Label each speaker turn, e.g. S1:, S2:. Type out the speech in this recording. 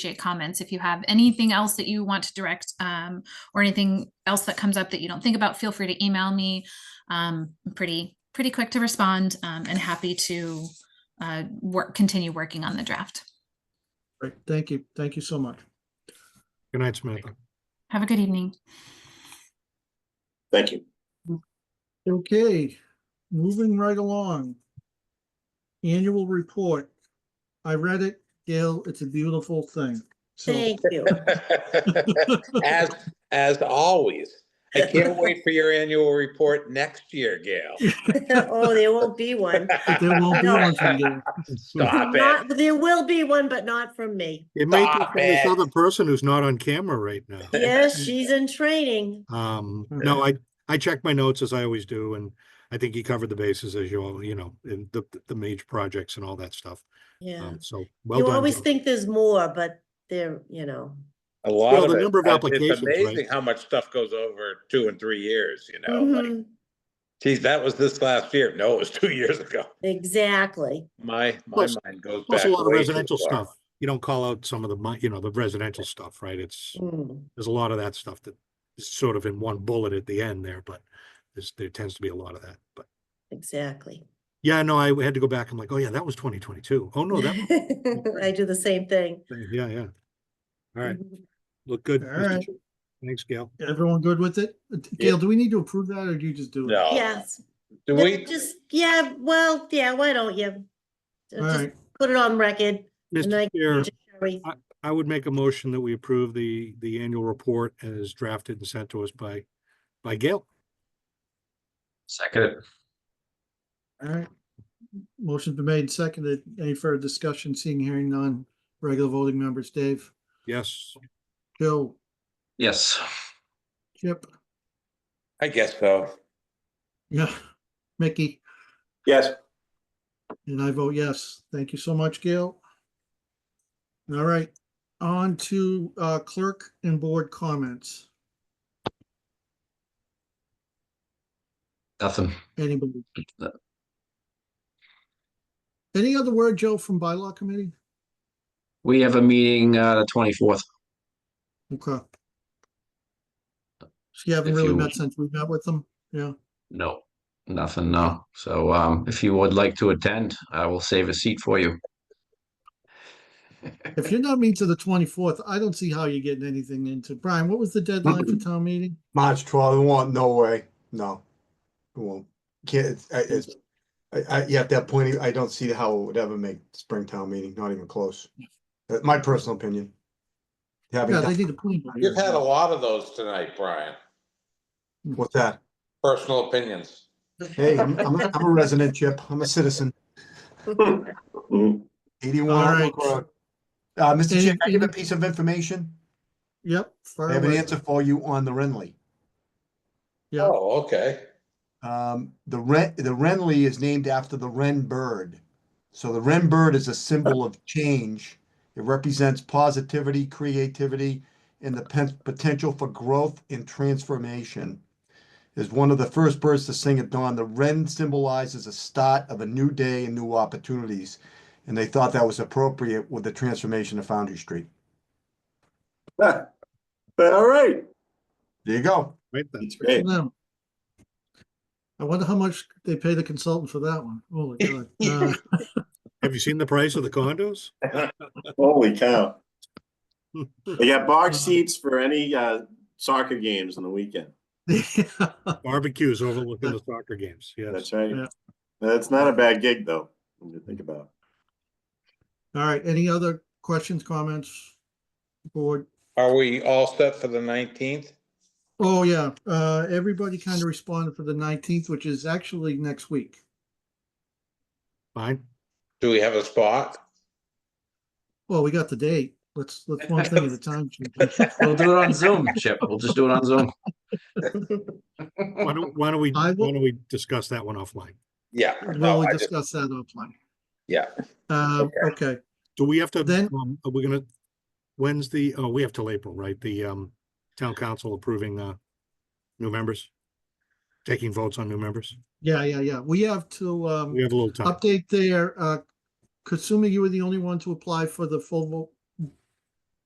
S1: appreciate comments. If you have anything else that you want to direct um, or anything else that comes up that you don't think about, feel free to email me. Um, I'm pretty, pretty quick to respond um, and happy to uh, work, continue working on the draft.
S2: Great, thank you, thank you so much.
S3: Good night, Samantha.
S1: Have a good evening.
S4: Thank you.
S2: Okay, moving right along. Annual report. I read it, Gail, it's a beautiful thing. So,
S5: Thank you.
S4: As, as always, I can't wait for your annual report next year, Gail.
S5: Oh, there won't be one.
S2: but there won't be
S5: No.
S2: one from Gail.
S4: Stop it.
S5: Not- There will be one, but not from me.
S3: It may be
S4: Stop
S3: from this
S4: it.
S3: other person who's not on camera right now.
S5: Yes, she's in training.
S3: Um, no, I, I checked my notes as I always do, and I think he covered the bases as you all, you know, in the, the major projects and all that stuff.
S5: Yeah.
S3: Um, so well
S5: You
S3: done.
S5: always
S3: Joe.
S5: think there's more, but there, you know,
S4: A lot
S3: Well,
S4: of
S3: the
S4: it.
S3: number of
S4: uh,
S3: applications, right?
S4: It's amazing how much stuff goes over two and three years, you know?
S3: Mm-hmm.
S4: like,
S5: Mhm,
S4: Geez, that was this last year. No, it was two years ago.
S5: exactly.
S4: My, my
S3: Plus-
S4: mind goes back.
S3: Plus a lot of
S4: way too
S3: residential
S4: far.
S3: stuff. You don't call out some of the, mon- you know, the residential stuff, right? It's,
S5: Mm.
S3: there's a lot of that stuff that is sort of in one bullet at the end there, but there's, there tends to be a lot of that, but.
S5: Exactly.
S3: Yeah, no, I had to go back. I'm like, oh yeah, that was 2022. Oh no, that, was
S5: I do the same thing.
S3: yeah, yeah. All right,
S5: Mhm.
S3: look good.
S2: All
S3: Mr.
S2: right.
S3: Chu. Thanks, Gail.
S2: Everyone good with it? Uh, Gail, do we need to approve that or do you just do it?
S4: No.
S5: Yes.
S4: Do
S5: But
S4: we,
S5: Just, yeah, well, yeah, why don't you?
S2: All
S5: Just
S2: right,
S5: put it on record. and I
S3: Mr.
S5: can
S3: Chair,
S5: just carry-
S3: I would make a motion that we approve the, the annual report as drafted and sent to us by, by Gail.
S6: Second.
S2: all right. Motion's been made, and seconded. Any further discussion? Seeing, hearing none. Regular voting members, Dave,
S3: Yes,
S2: Joe,
S6: Yes.
S2: Chip,
S4: I guess so.
S2: yeah, Mickey.
S4: Yes.
S2: And I vote yes. Thank you so much, Gail. All right, on to uh, clerk and board comments.
S6: Nothing.
S2: Anybody?
S6: No.
S2: Any other word, Joe, from bylaw committee?
S6: We have a meeting, uh, the twenty-fourth.
S2: Okay. So you haven't
S6: If
S2: really
S6: you-
S2: met since we met with them? Yeah,
S6: No, nothing, no. So, um, if you would like to attend, I will save a seat for you.
S2: if you're not meeting to the twenty-fourth, I don't see how you're getting anything into. Brian, what was the deadline for town meeting?
S7: March twelfth, it won't, no way, no. It won't, can't, it's, I- it's, I, I, yeah, at that point, I don't see how it would ever make Springtown meeting, not even close. That's my personal opinion. Having,
S2: Yeah, they
S7: done-
S2: need a plan. by
S4: You've had a
S3: Mm-hmm.
S2: then.
S4: lot of those tonight, Brian.
S7: what's that?
S4: Personal opinions.
S7: Hey, I'm, I'm, a- I'm a resident, Chip, I'm a citizen, eighty-one
S2: All
S7: Outlook
S2: right.
S7: Road. Uh, Mr. Chair, can I give a
S2: Anything-
S7: piece of information?
S2: Yep. fire
S7: I have an
S2: away.
S7: answer for you on the Renly.
S2: Yeah.
S4: Oh, okay.
S7: Um, the Ren, the Renly is named after the Wren bird. So the Wren bird is a symbol of change. It represents positivity, creativity, and the pen- potential for growth and transformation. Is one of the first birds to sing at dawn. The Wren symbolizes a start of a new day and new opportunities. And they thought that was appropriate with the transformation of Foundry Street.
S8: All right,
S7: There you go.
S3: right then.
S8: that's great.
S2: No. I wonder how much they pay the consultant for that one. Holy God. Uh,
S3: Have you seen the price of the condos?
S8: Holy cow. They got box seats for any uh, soccer games on the weekend.
S3: Barbecues overlooking the soccer games, yes.
S8: That's right.
S2: Yeah.
S8: That's not a bad gig, though, when you think about
S2: All right, any other questions, comments? Board,
S4: Are we all set for the nineteenth?
S2: oh yeah, uh, everybody kind of responded for the nineteenth, which is actually next week.
S3: Fine.
S4: Do we have a spot?
S2: Well, we got the date. Let's, let's one thing at a time. Chief.
S6: We'll do it on Zoom, Chip. We'll just do it on Zoom.
S3: Why don't, why don't we,
S2: I
S3: why
S2: will-
S3: don't we discuss that one offline?
S4: Yeah.
S2: Well,
S4: no,
S2: we
S4: I just-
S2: discussed that offline.
S4: Yeah.
S2: Uh, okay,
S3: Do we have to,
S2: Then-
S3: um, are we gonna, when's the, oh, we have till April, right? The, um, town council approving, uh, new members? Taking votes on new members?
S2: yeah, yeah, yeah. We have to, um,
S3: We have a little time.
S2: update there. Uh, Kasumi, you were the only one to apply for the full vote,